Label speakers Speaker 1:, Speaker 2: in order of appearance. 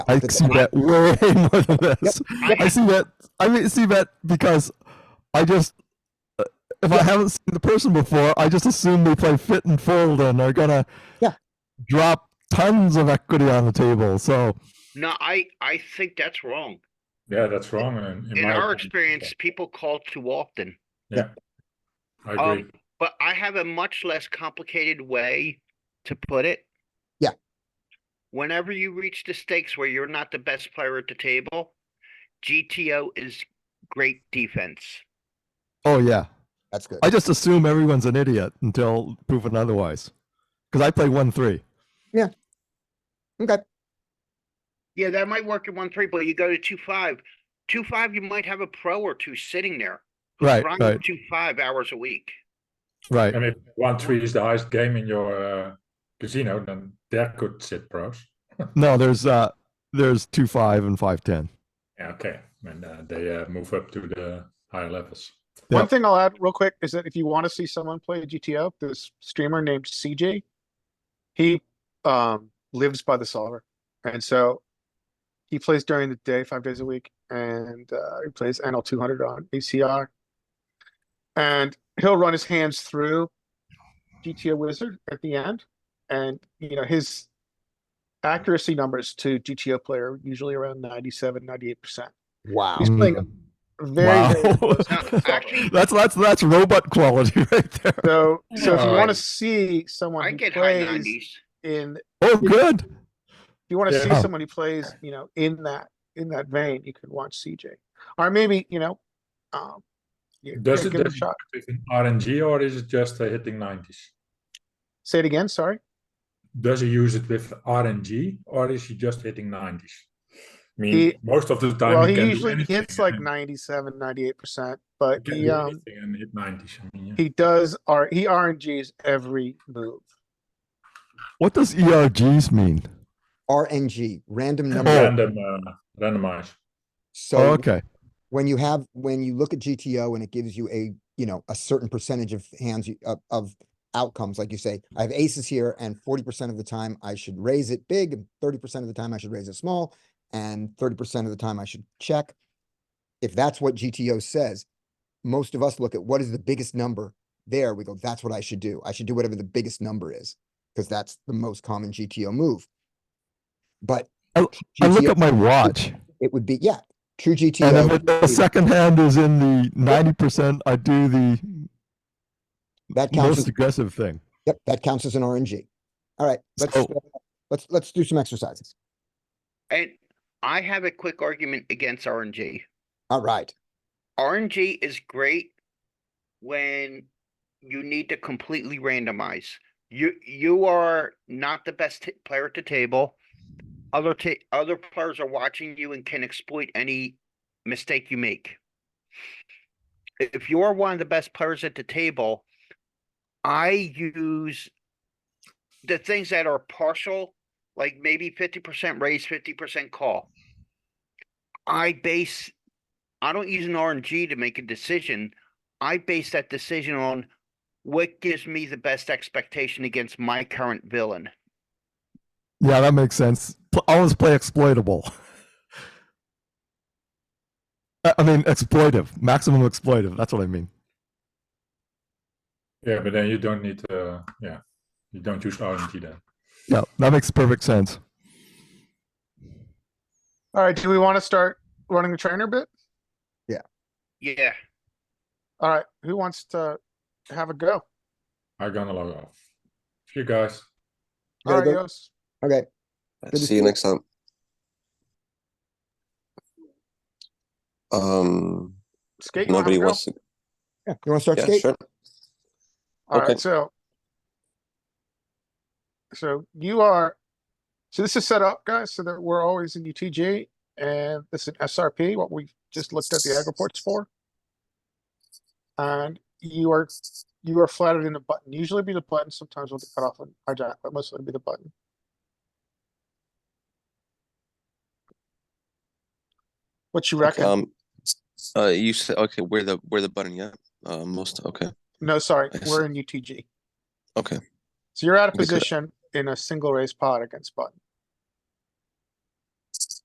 Speaker 1: I
Speaker 2: That's
Speaker 1: see
Speaker 2: right.
Speaker 1: that way more than this.
Speaker 2: yep.
Speaker 1: I see that. I mean, see that because I just uh, if I haven't seen the person before, I just assume they play fit and fold and are gonna
Speaker 2: Yeah.
Speaker 1: drop tons of equity on the table. So
Speaker 3: No, I, I think that's wrong.
Speaker 4: Yeah, that's wrong. In, in,
Speaker 3: In
Speaker 4: my
Speaker 3: our
Speaker 4: opinion.
Speaker 3: experience, people call too often.
Speaker 4: I agree.
Speaker 3: Um, but I have a much less complicated way to put it.
Speaker 2: Yeah.
Speaker 3: Whenever you reach the stakes where you're not the best player at the table, GTO is great defense.
Speaker 1: oh yeah,
Speaker 2: That's good.
Speaker 1: I just assume everyone's an idiot until proven otherwise. Because I play one three.
Speaker 2: Okay.
Speaker 3: Yeah, that might work in one three, but you go to two five. Two five, you might have a pro or two sitting there. who's
Speaker 1: Right,
Speaker 3: grinding
Speaker 1: right,
Speaker 3: Two five hours a week.
Speaker 1: right.
Speaker 4: and if one three is the highest game in your uh, casino, then there could sit pros.
Speaker 1: No, there's uh there's two five and five ten.
Speaker 4: Yeah, okay, and uh, they uh, move up to the higher levels.
Speaker 5: One
Speaker 1: Yep.
Speaker 5: thing I'll add real quick is that if you want to see someone play GTO, this streamer named CJ, he um lives by the solver, and so he plays during the day, five days a week, and uh, he plays NL two hundred on ACR, and he'll run his hands through GTO Wizard at the end, and you know his accuracy numbers to GTO player are usually around 97 98 percent
Speaker 2: Wow.
Speaker 5: he's playing very, very
Speaker 1: Mm. Wow.
Speaker 5: close to the solver.
Speaker 3: Actually,
Speaker 1: That's that's that's robot quality right there.
Speaker 5: So, so if you
Speaker 4: Alright.
Speaker 5: want to see someone
Speaker 3: I
Speaker 5: who
Speaker 3: get high
Speaker 5: plays
Speaker 3: nineties.
Speaker 5: in, if
Speaker 1: Oh, good.
Speaker 5: you want to
Speaker 4: Yeah.
Speaker 5: see
Speaker 1: Oh.
Speaker 5: someone who plays, you know, in that in that vein, you could watch CJ, or maybe you know, um, you
Speaker 4: Does
Speaker 5: yeah,
Speaker 4: it
Speaker 5: give it a
Speaker 4: does it
Speaker 5: shot.
Speaker 4: with an RNG or is it just uh, hitting nineties?
Speaker 5: Say it again. Sorry.
Speaker 4: Does he use it with RNG or is he just hitting nineties? I mean,
Speaker 5: He-
Speaker 4: most of the time.
Speaker 5: Well,
Speaker 4: he
Speaker 5: he
Speaker 4: can do
Speaker 5: usually
Speaker 4: anything
Speaker 5: hits like
Speaker 4: and-
Speaker 5: 97, 98 percent,
Speaker 4: he
Speaker 5: but
Speaker 4: can
Speaker 5: he
Speaker 4: do
Speaker 5: um
Speaker 4: anything and hit nineties. I mean, yeah.
Speaker 5: he does R he RNGs every move.
Speaker 1: What does ERGs mean?
Speaker 2: RNG, random number.
Speaker 4: random uh, randomize.
Speaker 1: Oh,
Speaker 2: So
Speaker 1: okay.
Speaker 2: when you have, when you look at GTO and it gives you a, you know, a certain percentage of hands, you- of, of outcomes, like you say, I have aces here and forty percent of the time I should raise it big, and thirty percent of the time I should raise it small, and thirty percent of the time I should check. If that's what GTO says, most of us look at what is the biggest number there, we go, that's what I should do. I should do whatever the biggest number is, because that's the most common GTO move. But
Speaker 1: I- I Oh, look
Speaker 2: GTO
Speaker 1: at my watch,
Speaker 2: it would be, yeah, true
Speaker 1: and
Speaker 2: GTO.
Speaker 1: if it, the
Speaker 2: is-
Speaker 1: second hand is in the ninety percent, I do the
Speaker 2: That counts
Speaker 1: most
Speaker 2: as,
Speaker 1: aggressive thing.
Speaker 2: yep, that counts as an RNG. All right, let's,
Speaker 1: So-
Speaker 2: uh, let's, let's do some exercises.
Speaker 3: And I have a quick argument against RNG.
Speaker 2: All right,
Speaker 3: RNG is great when you need to completely randomize. You you are not the best t- player at the table. Other ta- other players are watching you and can exploit any mistake you make. If you're one of the best players at the table, I use the things that are partial, like maybe 50% raise, 50% call. I base I don't use an RNG to make a decision. I base that decision on what gives me the best expectation against my current villain.
Speaker 1: Yeah, that makes sense. Pl- Always play exploitable. I I mean, exploitive, maximum exploitive. That's what I mean.
Speaker 4: Yeah, but then you don't need uh yeah, you don't use RNG then.
Speaker 1: Yeah, that makes perfect sense.
Speaker 5: All right, do we want to start running the trainer bit?
Speaker 3: Yeah.
Speaker 5: All right, who wants to have a go?
Speaker 4: I'm gonna log off. See you guys.
Speaker 2: Gotta go.
Speaker 5: Arios.
Speaker 2: okay.
Speaker 6: Uh,
Speaker 2: Good to
Speaker 6: See you next time. Um,
Speaker 5: Skate. you wanna have a
Speaker 6: nobody
Speaker 5: go?
Speaker 6: wants to,
Speaker 2: Yeah, you wanna start
Speaker 6: yeah,
Speaker 2: skate?
Speaker 6: sure.
Speaker 5: All
Speaker 6: Okay.
Speaker 5: right, so. So you are, so this is set up, guys, so that we're always in UTG and this is an SRP, what we just looked at the ag reports for. And you are, you are flattered in a button. Usually it'll be the button, sometimes we'll get cut off on hijack, but mostly it'll be the button. What you
Speaker 6: Okay,
Speaker 5: reckon?
Speaker 6: Um, uh, you said, okay, where the, where the button, yeah, uh, most, okay,
Speaker 5: No, sorry,
Speaker 6: I
Speaker 5: we're in UTG.
Speaker 6: okay,
Speaker 5: So you're out of
Speaker 6: Because-
Speaker 5: position in a single raise pot against button.